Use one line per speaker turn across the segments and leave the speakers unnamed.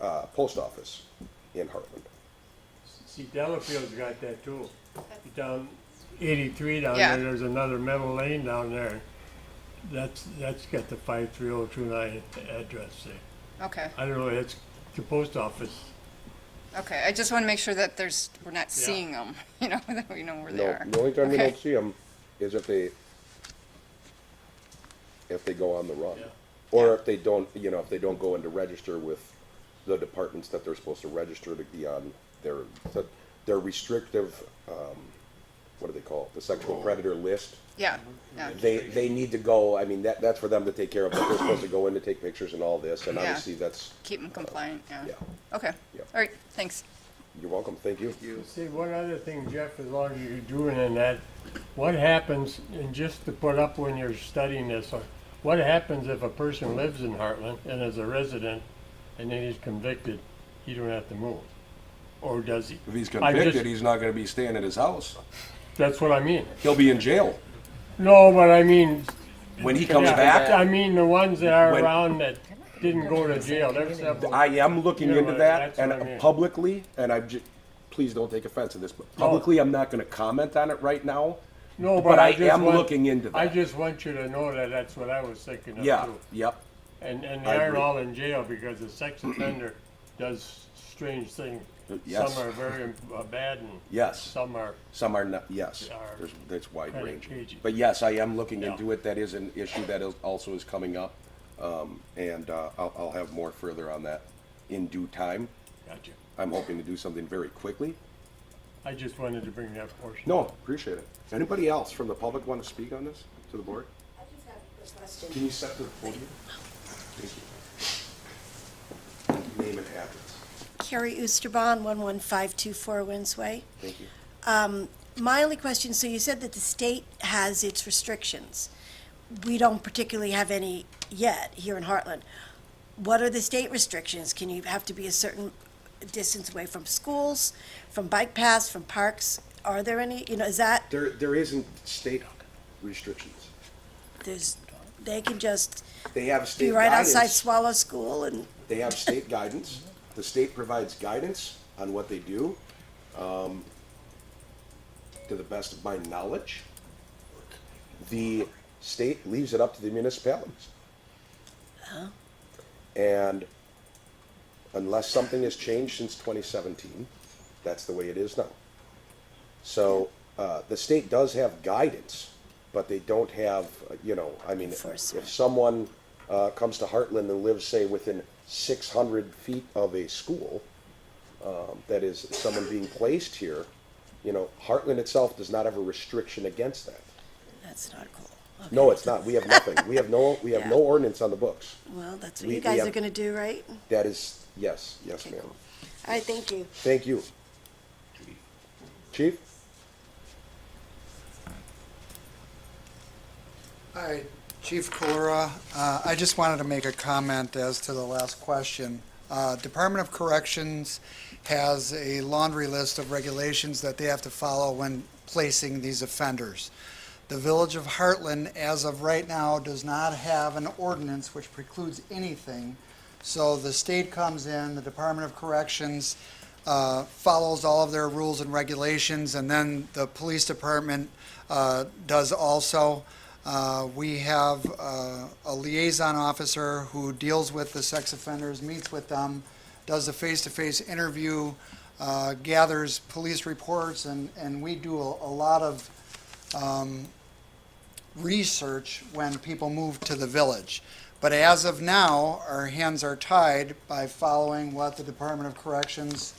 uh, post office in Heartland.
See, Delafield's got that too. Down eighty-three down
Yeah.
there, there's another middle lane down there. That's, that's got the five three oh two nine address there.
Okay,
I don't know, it's the post office.
okay. I just want to make sure that there's, we're not seeing them, you know, that we know where they
No,
are.
the only time we
Okay.
don't see them is if they, if they go on the run.
Yeah.
Or if they don't, you know, if they don't go in to register with the departments that they're supposed to register to be on their, that their restrictive, um, what do they call it, the sexual predator list.
Yeah, yeah,
They, they need to go, I mean, that, that's for them to take care of, but they're supposed to go in to take pictures and all this, and
Yeah.
obviously that's,
keep them compliant, yeah.
yeah.
Okay,
Yeah.
all right, thanks.
You're welcome, thank you.
See, one other thing, Jeff, as long as you're doing in that, what happens, and just to put up when you're studying this, or what happens if a person lives in Heartland and is a resident and then he's convicted, he don't have to move? Or does he?
If he's
I just-
convicted, he's not gonna be staying at his house.
That's what I mean.
He'll be in jail.
No, but I mean,
When he comes
yeah,
back,
I mean the ones that are
When-
around that didn't go to jail. There's several.
I am looking
Yeah,
into
well,
that
that's what I
and
mean. Oh.
publicly, and I'm just, please don't take offense to this, but publicly, I'm not gonna comment on it right now.
no, but,
But I
just
am
want-
looking into
I
that.
just want you to know that that's what I was thinking of
Yeah,
too.
yep.
And, and they
I
aren't
agree.
all in jail because a sex offender does strange things.
Yes.
Some are very uh, bad and
Yes.
some are,
Some are not, yes,
Are
there's, that's wide
kinda
range.
cagey.
But yes, I am looking
Yeah.
into it. That is an issue that is, also is coming up. Um, and, uh, I'll, I'll have more further on that in due time.
gotcha.
I'm hoping to do something very quickly.
I just wanted to bring that portion.
No,
up.
appreciate it. Anybody else from the public want to speak on this to the board?
I just have a quick question.
Can you step to the podium? Thank you. Name and address.
Carrie Oosterbahn, 11524 Windsway.
Thank you.
Um, My only question, so you said that the state has its restrictions. We don't particularly have any yet here in Heartland. What are the state restrictions? Can you have to be a certain distance away from schools, from bike paths, from parks? Are there any, you know, is that,
There, there isn't state restrictions.
there's, they can just
They have
be
state
right outside
guidance.
Swallow School and,
They have state guidance. The state provides guidance on what they do. Um, To the best of my knowledge,
the state leaves it up to the municipalities. And unless something has changed since twenty seventeen, that's the way it is now. So, uh, the state does have guidance, but they don't have, uh, you know, I mean, if-
Enforcement.
if someone, uh, comes to Heartland and lives, say, within six hundred feet of a school, um, that is someone being placed here, you know, Heartland itself does not have a restriction against that.
that's not cool. Okay.
No, it's not. We have nothing. We have no, we have no
Yeah.
ordinance on the books.
Well, that's
We-
what
we
you guys
have-
are gonna do, right?
That is, yes, yes,
Okay,
ma'am.
cool. All right, thank you.
Thank you. Chief?
Hi, Chief Kalura. Uh, I just wanted to make a comment as to the last question. Uh, Department of Corrections has a laundry list of regulations that they have to follow when placing these offenders. The Village of Heartland, as of right now, does not have an ordinance which precludes anything. So the state comes in, the Department of Corrections uh, follows all of their rules and regulations, and then the police department uh, does also. Uh, We have uh, a liaison officer who deals with the sex offenders, meets with them, does a face-to-face interview, uh, gathers police reports, and, and we do a a lot of research when people move to the village. But as of now, our hands are tied by following what the Department of Corrections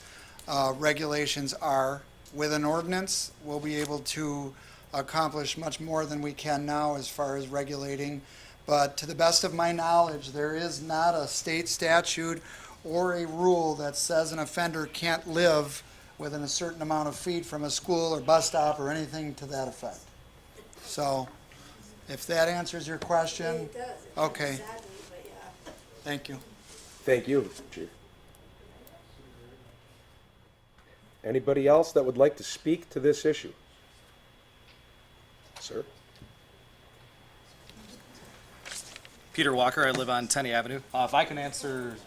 uh, regulations are. With an ordinance, we'll be able to accomplish much more than we can now as far as regulating. But to the best of my knowledge, there is not a state statute or a rule that says an offender can't live within a certain amount of feet from a school or bus stop or anything to that effect. So, if that answers your question, Okay. thank you.
Thank you, Chief. Anybody else that would like to speak to this issue? Sir?
Peter Walker. I live on Tenney Avenue. Uh, if I can answer